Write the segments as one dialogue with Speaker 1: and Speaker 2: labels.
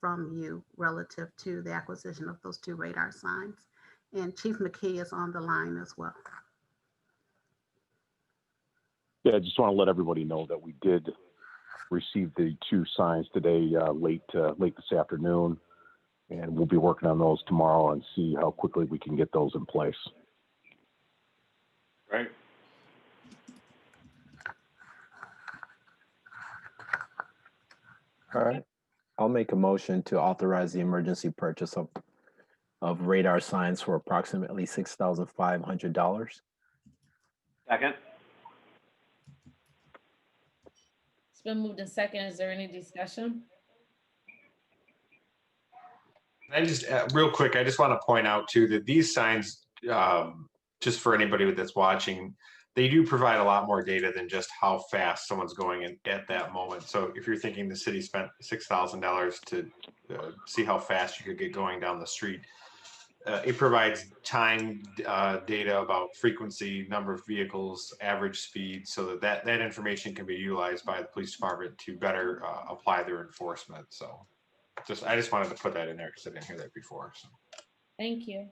Speaker 1: from you relative to the acquisition of those two radar signs. And Chief McKee is on the line as well.
Speaker 2: Yeah, I just want to let everybody know that we did receive the two signs today, uh, late, uh, late this afternoon. And we'll be working on those tomorrow and see how quickly we can get those in place.
Speaker 3: Right.
Speaker 4: All right. I'll make a motion to authorize the emergency purchase of, of radar signs for approximately six thousand five hundred dollars.
Speaker 3: Second?
Speaker 5: It's been moved in second. Is there any discussion?
Speaker 6: And I just, uh, real quick, I just want to point out too that these signs, um, just for anybody that's watching, they do provide a lot more data than just how fast someone's going in at that moment. So if you're thinking the city spent six thousand dollars to uh, see how fast you could get going down the street, uh, it provides time uh, data about frequency, number of vehicles, average speed, so that that, that information can be utilized by the police department to better uh, apply their enforcement. So just I just wanted to put that in there because I didn't hear that before. So.
Speaker 5: Thank you.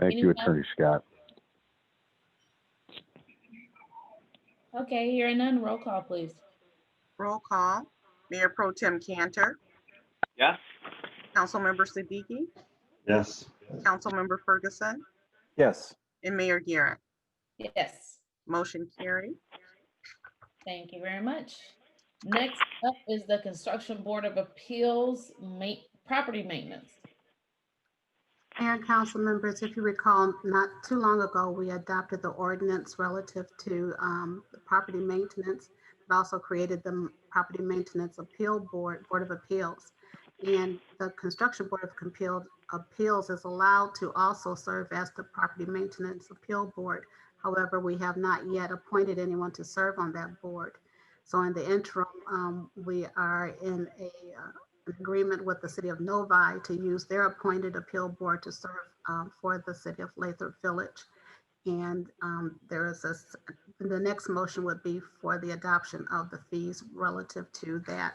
Speaker 2: Thank you,
Speaker 5: Anyone?
Speaker 2: Attorney Scott.
Speaker 5: Okay, hearing none, roll call, please.
Speaker 1: Roll call, Mayor Pro Tem Cantor,
Speaker 3: Yes?
Speaker 1: Councilmember Siddiqui,
Speaker 7: yes,
Speaker 1: Councilmember Ferguson,
Speaker 4: Yes.
Speaker 1: and Mayor Garrett.
Speaker 5: Yes,
Speaker 1: Motion carried.
Speaker 5: thank you very much. Next up is the Construction Board of Appeals ma- property maintenance.
Speaker 1: Mayor and council members, if you recall, not too long ago, we adopted the ordinance relative to um, the property maintenance. It also created the Property Maintenance Appeal Board, Board of Appeals. And the Construction Board of Compil- Appeals is allowed to also serve as the Property Maintenance Appeal Board. However, we have not yet appointed anyone to serve on that board. So in the interim, um, we are in a uh, an agreement with the city of Novi to use their appointed appeal board to serve um, for the city of Lathrop Village. And um, there is a, s- the next motion would be for the adoption of the fees relative to that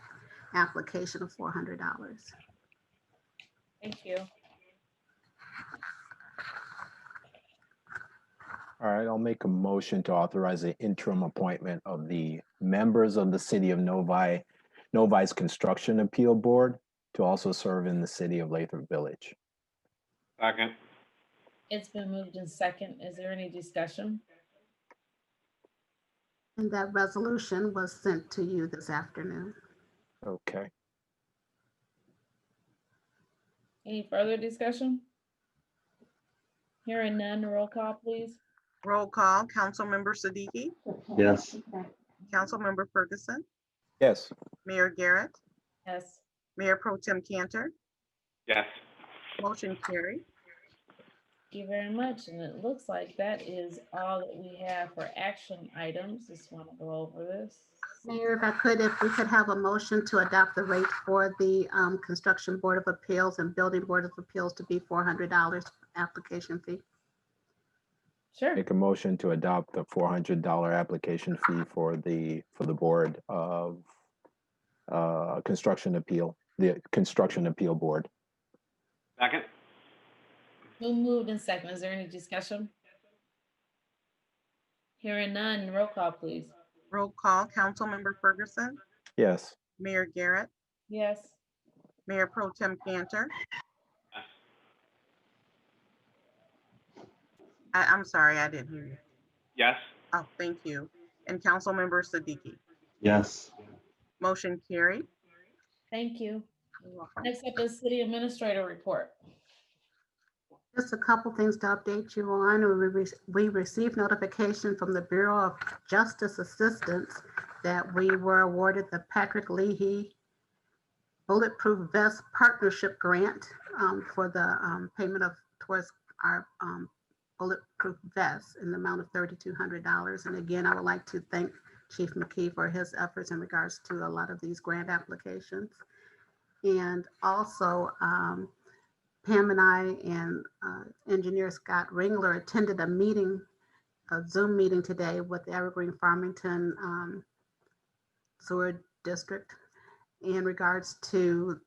Speaker 1: application of $400.
Speaker 5: Thank you.
Speaker 4: All right, I'll make a motion to authorize the interim appointment of the members of the City of Novi, Novi's Construction Appeal Board to also serve in the City of Lathrop Village.
Speaker 3: Second?
Speaker 5: It's been moved in second. Is there any discussion?
Speaker 1: And that resolution was sent to you this afternoon.
Speaker 4: Okay.
Speaker 5: Any further discussion? Hearing none, roll call, please.
Speaker 8: Roll call, Councilmember Siddiqui,
Speaker 7: yes.
Speaker 8: Councilmember Ferguson,
Speaker 4: Yes.
Speaker 8: Mayor Garrett,
Speaker 5: Yes,
Speaker 8: Mayor Pro Tem Cantor,
Speaker 3: Yes.
Speaker 8: motion carried.
Speaker 5: Thank you very much, and it looks like that is all that we have for action items. Just want to go over this.
Speaker 1: Mayor, if I could, if we could have a motion to adopt the rate for the um, Construction Board of Appeals and Building Board of Appeals to be $400 application fee.
Speaker 5: Sure,
Speaker 4: Make a motion to adopt the four hundred dollar application fee for the, for the Board of uh, Construction Appeal, the Construction Appeal Board.
Speaker 3: Second?
Speaker 5: who moved in second? Is there any discussion? Hearing none, roll call, please.
Speaker 8: Roll call, Councilmember Ferguson,
Speaker 4: Yes.
Speaker 8: Mayor Garrett,
Speaker 5: Yes,
Speaker 8: Mayor Pro Tem Cantor. I, I'm sorry, I didn't hear you.
Speaker 3: Yes?
Speaker 8: Oh, thank you. And Councilmember Siddiqui,
Speaker 7: Yes,
Speaker 8: motion carried.
Speaker 5: thank you. Next up is City Administrator Report.
Speaker 1: Just a couple things to update you on. We re- We received notification from the Bureau of Justice Assistance that we were awarded the Patrick Leahy Bulletproof Vest Partnership Grant um, for the um, payment of towards our um, bulletproof vests in the amount of $3,200. And again, I would like to thank Chief McKee for his efforts in regards to a lot of these grant applications. And also, um, Pam and I and uh, engineer Scott Ringler attended a meeting, a Zoom meeting today with the Evergreen Farmington um, Sewer District in regards to